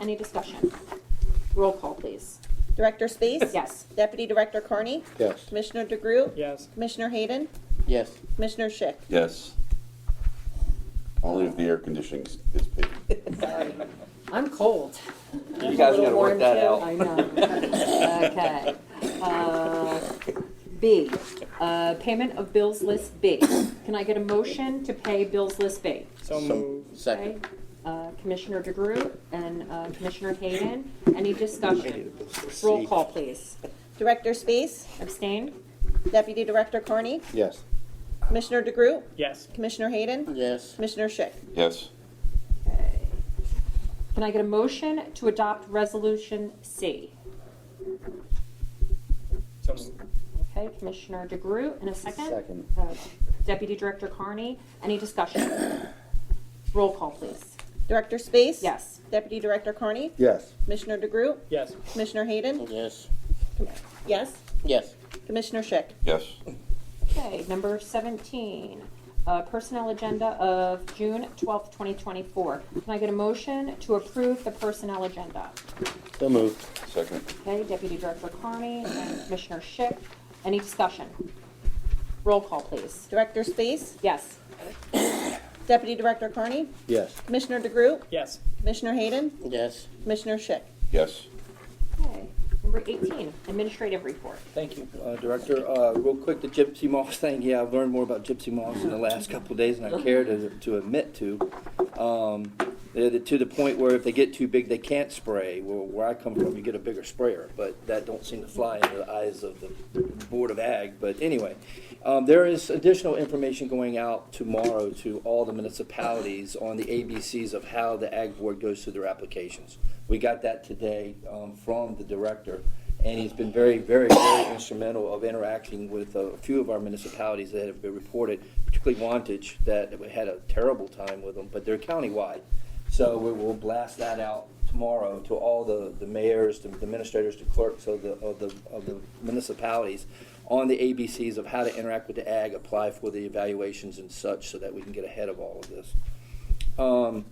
Any discussion? Roll call, please. Director Space? Yes. Deputy Director Carney? Yes. Commissioner DeGroot? Yes. Commissioner Hayden? Yes. Commissioner Schick? Yes. Only if the air conditioning is paid. I'm cold. You guys gotta work that I out. know. Okay. Uh, B, uh, payment of bills list B. Can I get a motion to pay bills list B? So moved. Second. Okay, uh, Commissioner DeGroot and uh, Commissioner Hayden, any discussion? Roll call, please. Director Space? Abstain? Deputy Director Carney? Yes. Commissioner DeGroot? Yes. Commissioner Hayden? Yes. Commissioner Schick? Yes. Okay. Can I get a motion to adopt Resolution C? So moved. Okay, Commissioner DeGroot, in a second. Second. Uh, Deputy Director Carney, any discussion? Roll call, please. Director Space? Yes. Deputy Director Carney? Yes. Commissioner DeGroot? Yes. Commissioner Hayden? Yes. Com- Yes. Yes. Commissioner Schick? Yes. Okay, number 17, uh, Personnel Agenda of June 12th, 2024. Can I get a motion to approve the Personnel Agenda? So moved. Second. Okay, Deputy Director Carney and Commissioner Schick, any discussion? Roll call, please. Director Space? Yes. Deputy Director Carney? Yes. Commissioner DeGroot? Yes. Commissioner Hayden? Yes. Commissioner Schick? Yes. Okay, number 18, Administrative Report. Thank you, uh, Director. Uh, Real quick, the gypsy moss thing, yeah, I've learned more about gypsy moss in the last couple of days than I care to to admit to. Um, they're the- To the point where if they get too big, they can't spray. Where where I come from, you get a bigger sprayer, but that don't seem to fly into the eyes of the Board of Ag. But anyway, um, there is additional information going out tomorrow to all the municipalities on the ABCs of how the Ag Board goes through their applications. We got that today um, from the Director and he's been very, very, very instrumental of interacting with a few of our municipalities that have been reported, particularly Wantage, that we had a terrible time with them, but they're countywide. So we will blast that out tomorrow to all the, the mayors, the administrators, the clerks of the, of the, of the municipalities on the ABCs of how to interact with the ag, apply for the evaluations and such, so that we can get ahead of all of this. Um,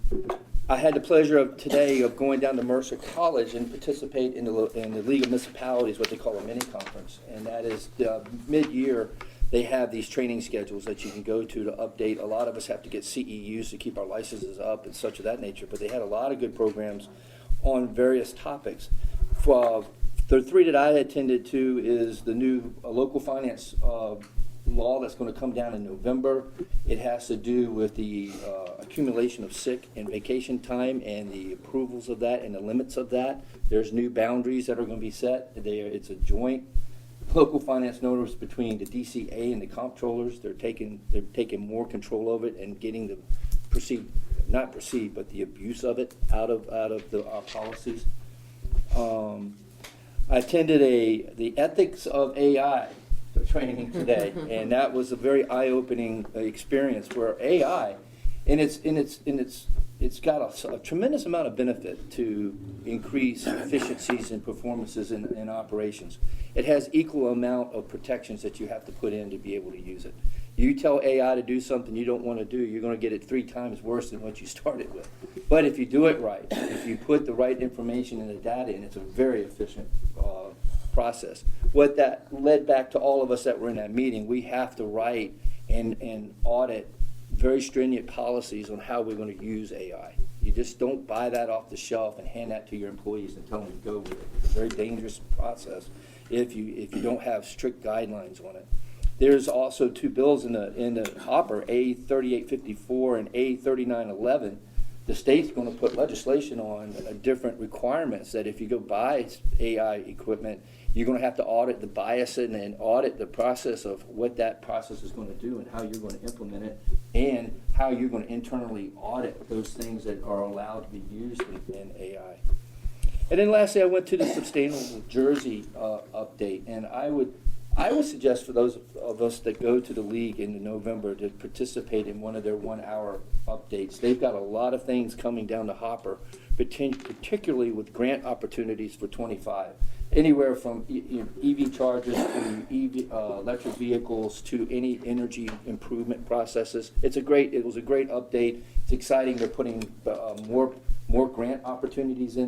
I had the pleasure of today of going down to Mercer College and participate in the, lo- in the League of Municipalities, what they call a mini conference. And that is, uh, mid-year, they have these training schedules that you can go to to update. A lot of us have to get CEUs to keep our licenses up and such of that nature, but they had a lot of good programs on various topics. For, the three that I attended to is the new uh, local finance, uh, law that's going to come down in November. It has to do with the uh, accumulation of sick and vacation time and the approvals of that and the limits of that. There's new boundaries that are going to be set. They, it's a joint local finance notice between the DCA and the comptrollers. They're taking, they're taking more control of it and getting the proceed, not proceed, but the abuse of it out of, out of the uh, policies. Um, I attended a, the ethics of AI training today, and that was a very eye-opening uh, experience where AI, and it's, and it's, and it's, it's got a s- a tremendous amount of benefit to increase efficiencies and performances in, in operations. It has equal amount of protections that you have to put in to be able to use it. You tell AI to do something you don't want to do, you're going to get it three times worse than what you started with. But if you do it right, if you put the right information and the data in, it's a very efficient uh, process. What that led back to all of us that were in that meeting, we have to write and, and audit very stringent policies on how we're going to use AI. You just don't buy that off the shelf and hand that to your employees and tell them to go with it. It's a very dangerous process if you, if you don't have strict guidelines on it. There's also two bills in the, in the hopper, A thirty-eight fifty-four and A thirty-nine eleven. The state's gonna put legislation on uh, different requirements that if you go buy AI equipment, you're gonna have to audit the bias and and audit the process of what that process is gonna do and how you're gonna implement it and how you're gonna internally audit those things that are allowed to be used in in AI. And then lastly, I went to the Sustainable Jersey uh, update, and I would, I would suggest for those of us that go to the league in November to participate in one of their one-hour updates. They've got a lot of things coming down the hopper, partic- particularly with grant opportunities for twenty-five. Anywhere from E- E- EV chargers to EV, uh, electric vehicles to any energy improvement processes. It's a great, it was a great update. It's exciting. They're putting uh, more, more grant opportunities in